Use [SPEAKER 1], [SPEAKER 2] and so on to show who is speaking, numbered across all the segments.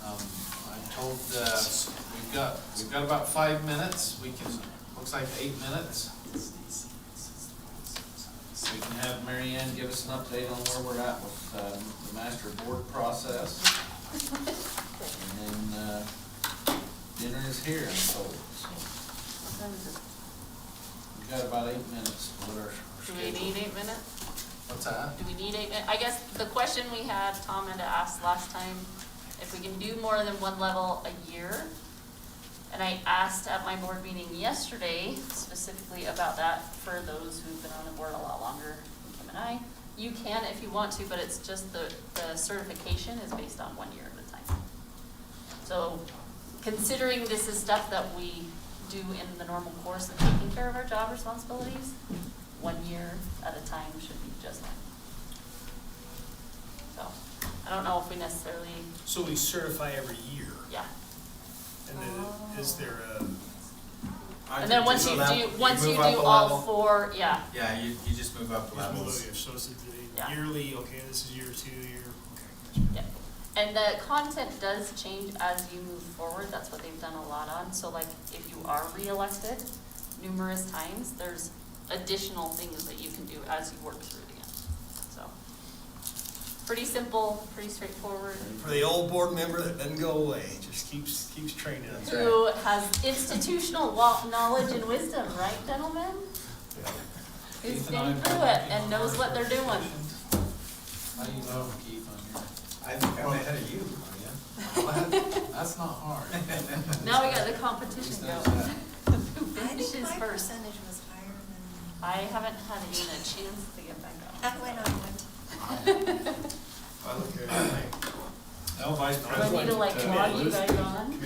[SPEAKER 1] Um, uh, we've got, we've got about five minutes, we can, looks like eight minutes. We can have Mary Ann give us an update on where we're at with, um, the master board process. And then, uh, dinner is here, I'm told, so we've got about eight minutes to let our
[SPEAKER 2] Do we
[SPEAKER 1] schedule.
[SPEAKER 2] need eight minutes?
[SPEAKER 1] What's that?
[SPEAKER 2] Do we need eight minutes? I guess the question we had, Tom had asked last time, if we can do more than one level a year. And I asked at my board meeting yesterday specifically about that for those who've been on the board a lot longer than Kim and I. You can if you want to, but it's just the, the certification is based on one year at a time. So considering this is stuff that we do in the normal course of taking care of our job responsibilities, one year at a time should be just fine. So, I don't know if we necessarily,
[SPEAKER 3] So we certify every year,
[SPEAKER 2] yeah.
[SPEAKER 3] and then is there a,
[SPEAKER 2] And then once you do, once you do all four, yeah,
[SPEAKER 4] Yeah, you, you just move up the
[SPEAKER 3] there's below
[SPEAKER 4] levels.
[SPEAKER 3] year, so it's a-
[SPEAKER 2] Yeah.
[SPEAKER 3] yearly, okay, this is year two, year, okay.
[SPEAKER 2] yeah. And the content does change as you move forward, that's what they've done a lot on, so like, if you are reelected numerous times, there's additional things that you can do as you work through it again, so. Pretty simple, pretty straightforward.
[SPEAKER 3] For the old board member that doesn't go away, just keeps, keeps training us.
[SPEAKER 4] That's right.
[SPEAKER 2] Who has institutional wa- knowledge and wisdom, right, gentlemen? Who's
[SPEAKER 1] Keith and I
[SPEAKER 2] been
[SPEAKER 1] have
[SPEAKER 2] through
[SPEAKER 1] been
[SPEAKER 2] it
[SPEAKER 1] working
[SPEAKER 2] and
[SPEAKER 1] on
[SPEAKER 2] knows
[SPEAKER 1] our
[SPEAKER 2] what they're doing.
[SPEAKER 1] How do you know Keith on here?
[SPEAKER 4] I think I'm ahead of you, Maria.
[SPEAKER 1] That's not hard.
[SPEAKER 2] Now we got the competition going. Who
[SPEAKER 5] I think
[SPEAKER 2] finishes
[SPEAKER 5] my
[SPEAKER 2] first?
[SPEAKER 5] percentage was higher than,
[SPEAKER 2] I haven't had even a chance to get back
[SPEAKER 5] that went on one time.
[SPEAKER 2] on.
[SPEAKER 3] I look at everything.
[SPEAKER 1] No, vice
[SPEAKER 2] Do I need to like log you guys on?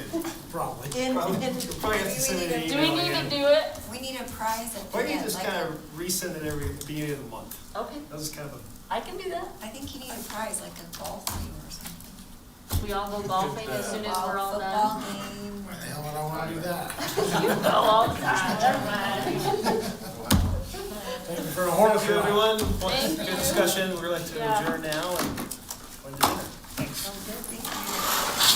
[SPEAKER 3] Probably.
[SPEAKER 5] In-
[SPEAKER 3] Probably.
[SPEAKER 5] in-
[SPEAKER 3] Probably have to send an
[SPEAKER 5] Do
[SPEAKER 2] Do we
[SPEAKER 3] email
[SPEAKER 2] need to
[SPEAKER 3] again.
[SPEAKER 2] do it?
[SPEAKER 5] We need a prize at the
[SPEAKER 3] Why
[SPEAKER 5] end.
[SPEAKER 3] don't you just
[SPEAKER 5] like
[SPEAKER 3] kind
[SPEAKER 5] a-
[SPEAKER 3] of resend it every beginning of the month?
[SPEAKER 2] Okay,
[SPEAKER 3] That was kind of a,
[SPEAKER 2] I can do that.
[SPEAKER 5] I think you need a prize, like a golf game or something.
[SPEAKER 2] We all go golfing as soon as we're all
[SPEAKER 5] Football
[SPEAKER 2] done.
[SPEAKER 5] game.
[SPEAKER 6] Why the hell would I wanna do that?
[SPEAKER 2] You go all the time, never mind.
[SPEAKER 3] thank you for a horrible.
[SPEAKER 6] Thank you,
[SPEAKER 3] everyone.
[SPEAKER 2] Thank you.
[SPEAKER 3] Good discussion, we're going to
[SPEAKER 2] Yeah.
[SPEAKER 3] adjourn now and. go to dinner.
[SPEAKER 5] Sounds good, thank you.